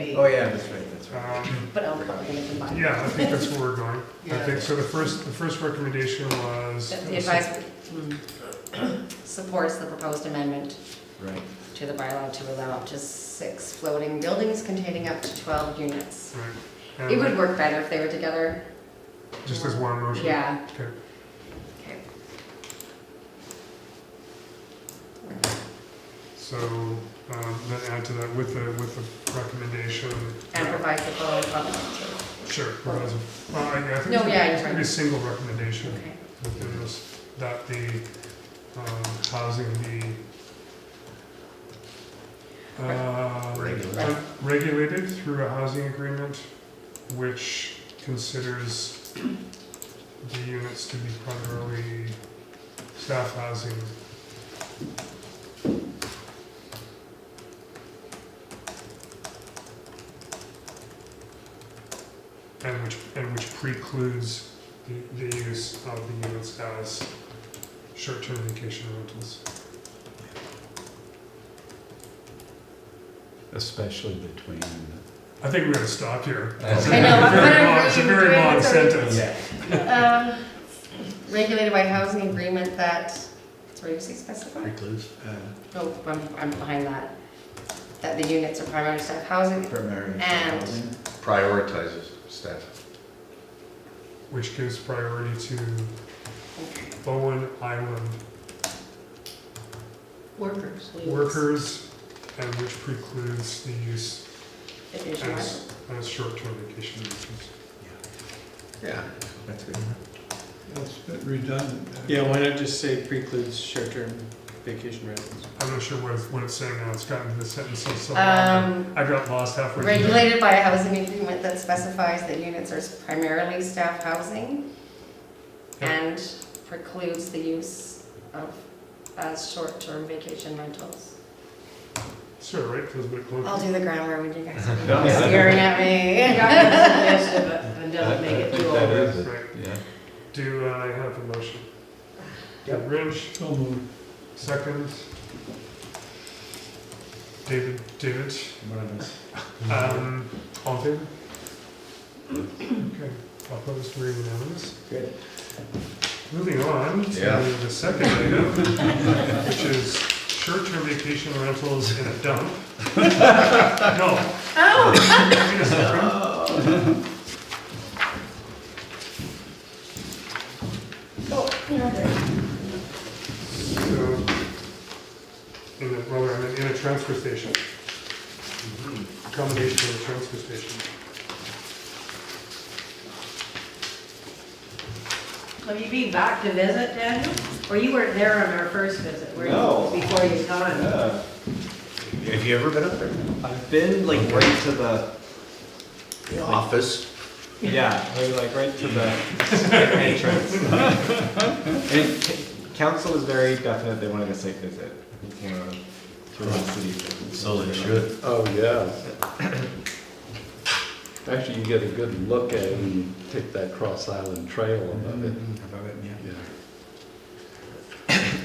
eight. Oh, yeah, that's right, that's right. Um, But I'm probably gonna combine. Yeah, I think that's where we're going. I Yeah. think, so the first, the first recommendation was. That The advice mm, supports the proposed amendment Right. to the bylaw to allow up to six floating buildings containing up to 12 units. Right. It would And work better if they were together. Just as one motion? Yeah. Okay. Okay. So, um, then add to that with the, with the recommendation. And provide the following public notice. Sure. provides a- Well, I, I think No, yeah, you're it's gonna be right. a single recommendation Okay. within this, that the, um, housing be, uh, Regulated. regulated through a housing agreement which considers the units to be primarily staff housing. And which, and which precludes the, the use of the units as short-term vacation rentals. Especially between. I think we're gonna stop here. It's a I know, I'm very gonna long- It's a read very through it, long it's already- sentence. Yeah. Um, Regulated by housing agreement that, where you say specify? Recluse. Oh, I'm, I'm behind that. That the units are primary staff housing. Primary. And- housing. prioritizes staff. Which gives priority to Okay. Bowen Island Workers. workers and which precludes the use Workers. as, as short-term vacation rentals. Yeah. That's good. That's a bit redundant. Yeah, why not just say precludes short-term vacation rentals? I'm not sure what, it's- what it's saying now, it's gotten to the sentence so, so long. Um, I got lost halfway through. regulated by a housing agreement that specifies that units are primarily staff housing Yeah. and precludes the use of, as short-term vacation rentals. Sure, right, feels a bit I'll clunky. do the grammar when you guys No. are scaring at me. And doesn't make it too That old. is it. Right, Yeah. do I have a motion? Yep. Rich, So moved. second. David, David, One of us. um, all in favor? Okay, opposed, we're unanimous. Good. Moving on to Yeah. the second item, which is short-term vacation rentals in a dump. No. Wait a second. So, in a, well, in a- in a transfer station. Accommodation in a transfer station. Have you been back to visit, Daniel? Or you weren't there on our first visit, were you? No. Before your time? Yeah. Have you ever been up there? Uh, I've been like right to the, The office? yeah, like- like right to the entrance. And c- council was very definite, they wanted a site visit. It came out through the city. So they should. Oh, yeah. Actually, you get a good look at it when you take that Cross Island Trail above it. Above it, yeah. Yeah.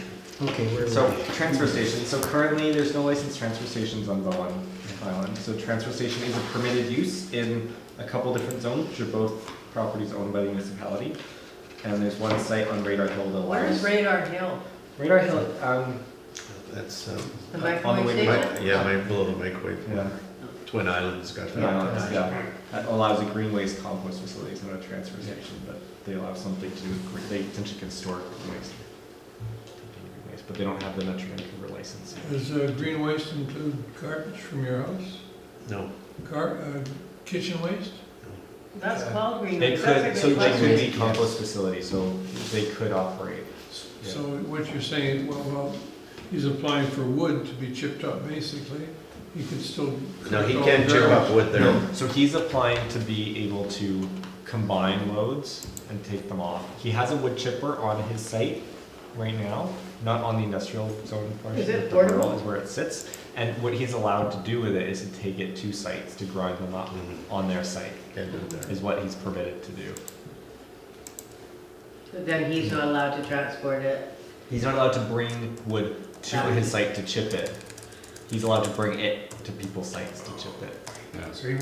Okay, where So, transfer station, so currently there's no licensed transfer stations on Bowen Island. So transfer station is a permitted use in a couple different zones, which are both properties owned by the municipality. And there's one site on Radar Hill that Where's allows. Radar Hill? Radar Hill, um, That's, um, The On the microwave way station? back. yeah, right below the microwave. yeah. Twin Islands got Yeah, that. that's- yeah. That allows a green waste compost facility, it's not a transfer station, but they allow something to do with, green- they essentially can store green waste. Green waste, But they don't have the Metro Vancouver license. Does uh, green waste include garbage from your house? No. Gar, uh, kitchen waste? That's called Green. They Waste. That's could, a so good they could question. be compost facility, so they could operate. Yeah. So what you're saying, well, well, he's applying for wood to be chipped up, basically. He could still. No, he collect all can the chip up garbage. wood there. So he's applying to be able to combine loads and take them off. He has a wood chipper on his site right now, not on the industrial zone portion. Is but it the rural portable? Is where it sits, and what he's allowed to do with it is to take it to sites, to grind them up Mhm. on their site, Can't do it there. is what he's permitted to do. But Then he's not allowed to transport it. He's not allowed to bring wood to Yeah. his site to chip it. He's allowed to bring it to people's sites to chip it. So you